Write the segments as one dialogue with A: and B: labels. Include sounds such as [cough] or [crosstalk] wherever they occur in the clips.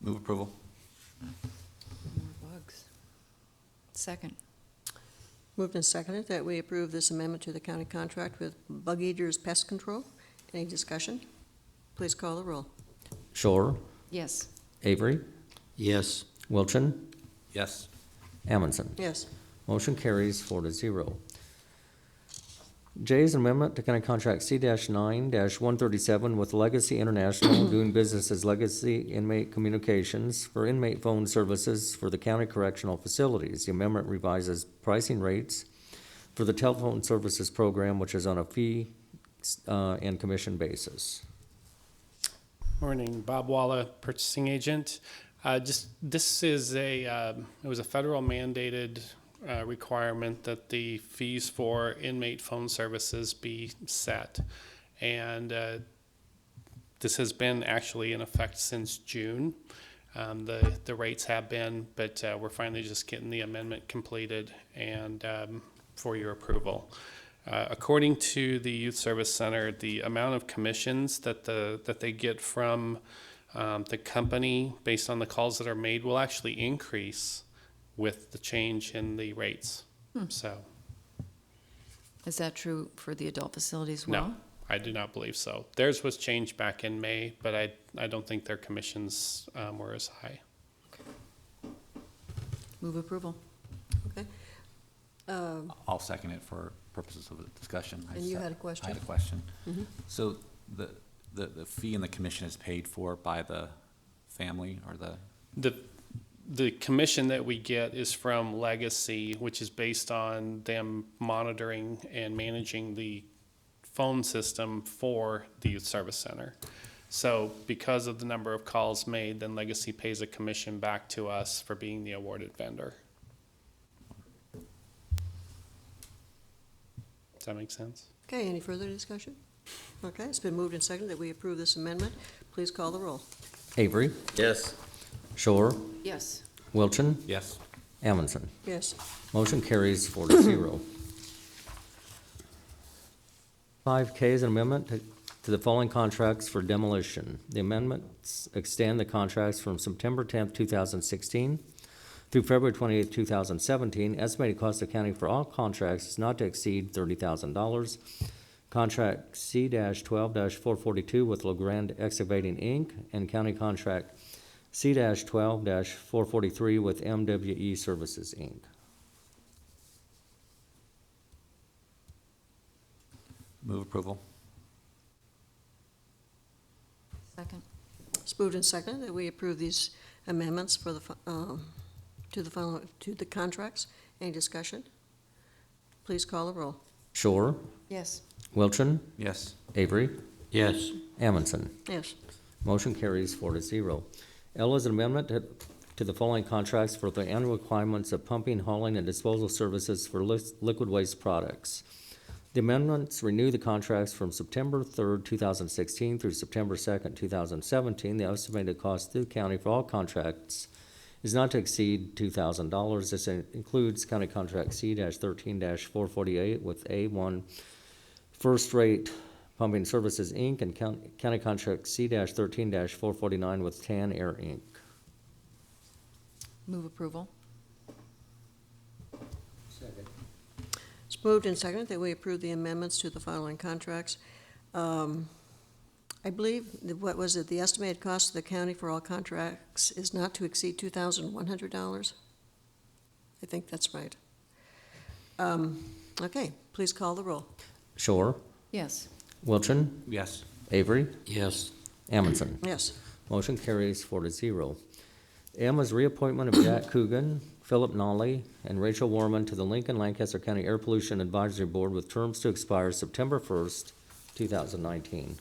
A: Move approval.
B: More bugs. Second.
C: Moved and seconded that we approve this amendment to the county contract with Bug Eaters Pest Control. Any discussion? Please call the roll.
D: Shore,
B: Yes.
D: Avery,
E: Yes.
D: Wilchin,
A: Yes.
D: Amundson.
C: Yes.
D: Motion carries four to zero. J is an amendment to county contract C nine one thirty-seven with Legacy International doing business as Legacy Inmate Communications for inmate phone services for the county correctional facilities. The amendment revises pricing rates for the telephone services program, which is on a fee, uh, and commission basis.
F: Morning, Bob Walla, purchasing agent. Uh, Just, this is a, um, it was a federal mandated uh, requirement that the fees for inmate phone services be set. And uh, this has been actually in effect since June. Um, The, the rates have been, but uh, we're finally just getting the amendment completed and um, for your approval. Uh, according to the Youth Service Center, the amount of commissions that the that they get from um, the company based on the calls that are made will actually increase with the change in the rates. So
B: Is that true for the adult facility as
F: no,
B: well?
F: I do not believe so. Theirs was changed back in May, but I I don't think their commissions um, were as high.
B: Move approval.
C: Um,
A: I'll second it for purposes of the discussion. I
C: And you
A: just-
C: had a question? Mm-hmm.
A: I had a question. So the, the, the fee and the commission is paid for by the family or the,
F: The the commission that we get is from Legacy, which is based on them monitoring and managing the phone system for the youth service center. So because of the number of calls made, then Legacy pays a commission back to us for being the awarded vendor. Does that make sense?
C: Okay, any further discussion? Okay, it's been moved and seconded that we approve this amendment. Please call the roll.
D: Avery,
E: Yes.
D: Shore,
B: Yes.
D: Wilchin,
A: yes,
D: Amundson.
C: Yes.
D: Motion carries four to zero. Five K is an amendment to- to the following contracts for demolition. The amendments extend the contracts from September tenth, two thousand sixteen through February twenty-eighth, two thousand seventeen. Estimated cost of county for all contracts is not to exceed thirty thousand dollars. Contract C twelve four forty-two with LeGrand Excavating Inc. and County Contract C twelve four forty-three with MWE Services Inc.
A: move approval.
B: Second.
C: It's moved and seconded that we approve these amendments for the, fi- um, to the final, to the contracts. Any discussion? Please call the roll.
D: Shore,
B: Yes.
D: Wilchin,
A: Yes,
D: Avery,
E: Yes.
D: Amundson.
C: Yes.
D: Motion carries four to zero. L is an amendment to- to the following contracts for the annual requirements of pumping, hauling, and disposal services for lis- liquid waste products. The amendments renew the contracts from September third, two thousand sixteen through September second, two thousand seventeen. The estimated cost to the county for all contracts is not to exceed two thousand dollars. This in- includes county contract C thirteen four forty-eight with A one first rate Pumping Services, Inc., and Coun- County Contract C-13-449 with Tan Air, Inc.
B: Move approval.
C: It's moved and seconded that we approve the amendments to the following contracts. Um, I believe, the- what was it, the estimated cost of the county for all contracts is not to exceed two thousand one hundred dollars? I think that's right. Um, Okay, please call the roll.
D: Shore,
B: Yes.
D: Wilchin,
A: yes,
D: Avery,
E: Yes.
D: Amundson.
C: Yes,
D: Motion carries four to zero. M is reappointment of
E: [clears throat]
D: Jack Coogan, Philip Nolly, and Rachel Warman to the Lincoln Lancaster County Air Pollution Advisory Board with terms to expire September 1st, 2019.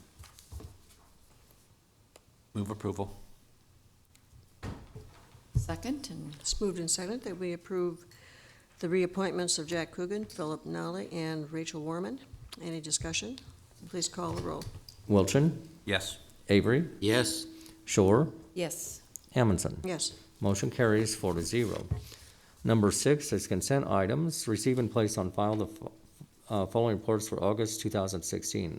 A: move approval.
B: Second and
C: it's moved and seconded that we approve the reappointments of Jack Coogan, Philip Nolly, and Rachel Warman. Any discussion? Please call the roll.
D: Wilchin,
A: Yes,
D: Avery,
E: Yes.
D: Shore,
B: yes.
D: Amundson.
C: Yes,
D: Motion carries four to zero. Number six is consent items. Receive and place on file the fo- uh, following reports for August 2016.